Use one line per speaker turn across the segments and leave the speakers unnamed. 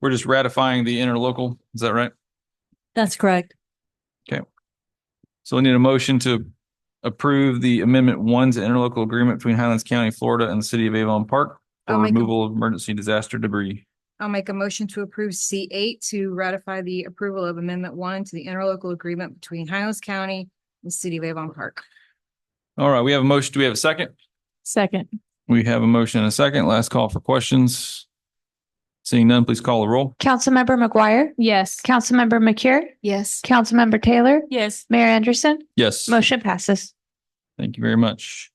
We're just ratifying the interlocal. Is that right?
That's correct.
So we need a motion to approve the amendment one to interlocal agreement between Highlands County, Florida and the city of Avon Park
I'll
for
make a-
removal of emergency disaster debris.
I'll make a motion to approve C eight to ratify the approval of Amendment One to the interlocal agreement between Highlands County and the City of Avon Park.
All right, we have a motion. Do we have a second?
Second.
We have a motion and a second. Last call for questions. Seeing none, please call the roll.
Councilmember McGuire?
Yes.
Councilmember McCure?
Yes.
Councilmember Taylor?
Yes.
Mayor Anderson?
Yes,
Motion passes.
thank you very much.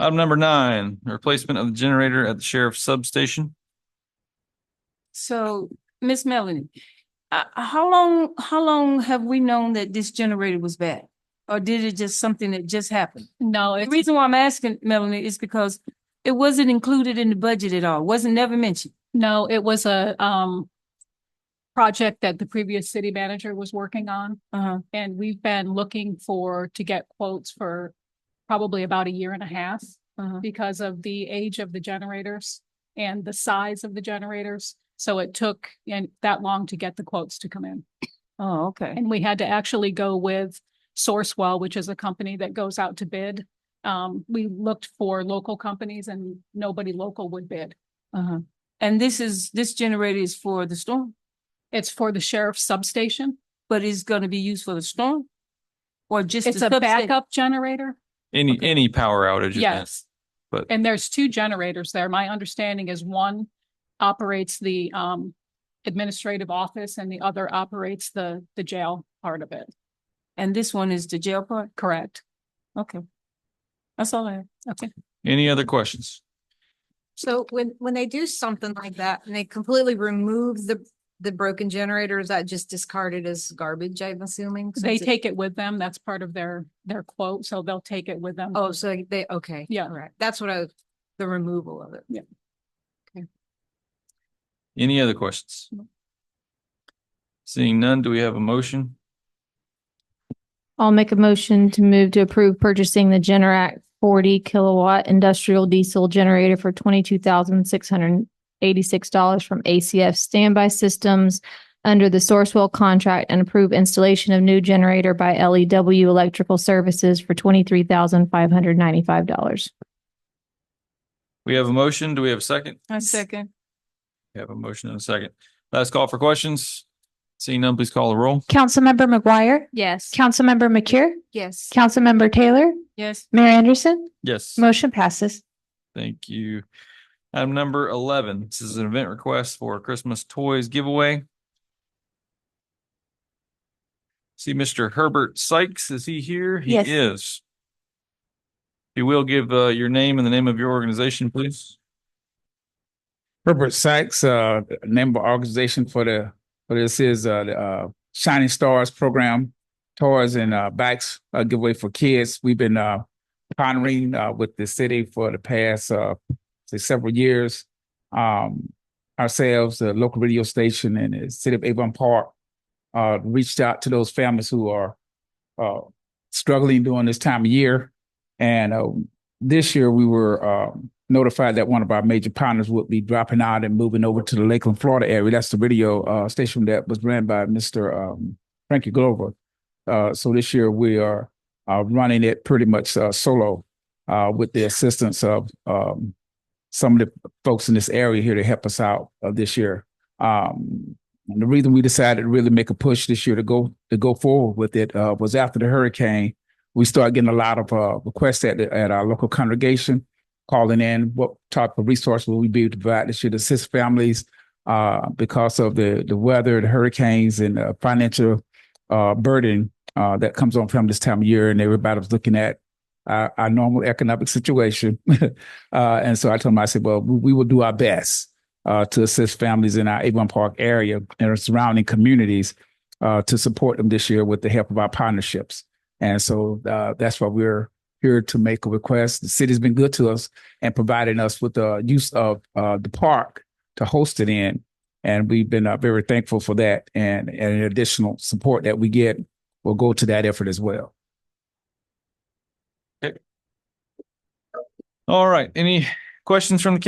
Item number nine, replacement of the generator at the sheriff's substation.
So, Miss Melanie, uh, how long, how long have we known that this generator was bad? Or did it just something that just happened?
No,
The
it's,
reason why I'm asking Melanie is because it wasn't included in the budget at all, wasn't never mentioned.
no, it was a, um, project that the previous city manager was working on.
Uh-huh.
And we've been looking for, to get quotes for probably about a year and a half
Uh-huh.
because of the age of the generators and the size of the generators. So it took and that long to get the quotes to come in.
Oh, okay.
And we had to actually go with Sourcewell, which is a company that goes out to bid. Um, we looked for local companies and nobody local would bid.
Uh-huh. And this is, this generator is for the storm,
It's for the sheriff's substation.
but it's gonna be used for the storm? Or just?
It's
the
a
substa-
backup generator.
Any,
Okay.
any power outage. event.
Yes.
but-
And there's two generators there. My understanding is one operates the, um, administrative office and the other operates the, the jail part of it.
And this one is the jail part?
Correct.
Okay. That's all I have.
Okay.
Any other questions?
So when, when they do something like that and they completely remove the, the broken generator, is that just discarded as garbage, I'm assuming?
They
since it-
take it with them. That's part of their, their quote. So they'll take it with them.
Oh, so they, okay.
Yeah.
All right. That's what I, was- the removal of it.
Any other questions? Seeing none, do we have a motion?
I'll make a motion to move to approve purchasing the Generac forty kilowatt industrial diesel generator for twenty-two thousand six hundred and eighty-six dollars from ACF Standby Systems under the Sourcewell contract and approve installation of new generator by LEW Electrical Services for twenty-three thousand five hundred ninety-five dollars.
We have a motion. Do we have a second?
I second.
We have a motion and a second. Last call for questions. Seeing none, please call the roll.
Councilmember McGuire?
Yes.
Councilmember McCure?
Yes.
Councilmember Taylor?
Yes.
Mayor Anderson?
Yes,
Motion passes.
thank you. Item number eleven, this is an event request for a Christmas Toys giveaway. See Mr. Herbert Sykes, is he here? He
Yes.
is. If You will give uh your name and the name of your organization, please.
Herbert Sykes, uh, the name of our organization for the, for this is, uh, the, uh, Shining Stars Program. Toys and, uh, bikes, uh, giveaway for kids. We've been, uh, partnering, uh, with the city for the past, uh, say several years. Um, ourselves, the local radio station and the city of Avon Park, uh, reached out to those families who are, uh, struggling during this time of year. And, uh, this year we were, um, notified that one of our major partners would be dropping out and moving over to the Lakeland, Florida area. That's the radio uh, station that was ran by Mr. Um, Frankie Glover. Uh, so this year we are uh, running it pretty much uh, solo uh, with the assistance of um, some of the folks in this area here to help us out uh, this year. Um, and the reason we decided to really make a push this year to go to go forward with it uh, was after the hurricane, we started getting a lot of uh, requests at the, at our local congregation calling in, what type of resource will we be able to provide this year to assist families uh, because of the, the weather, the hurricanes, and the financial uh, burden uh, that comes on from this time of year. And everybody was looking at our, our normal economic situation. uh, and so I told them, I said, well, we, we will do our best uh, to assist families in our Avon Park area and our surrounding communities uh, to support them this year with the help of our partnerships. And so uh, that's why we're here to make a request. The city's been good to us and providing us with the use of uh, the park to host it in. And we've been uh, very thankful for that. And, and additional support that we get will go to that effort as well.
All right, any questions from the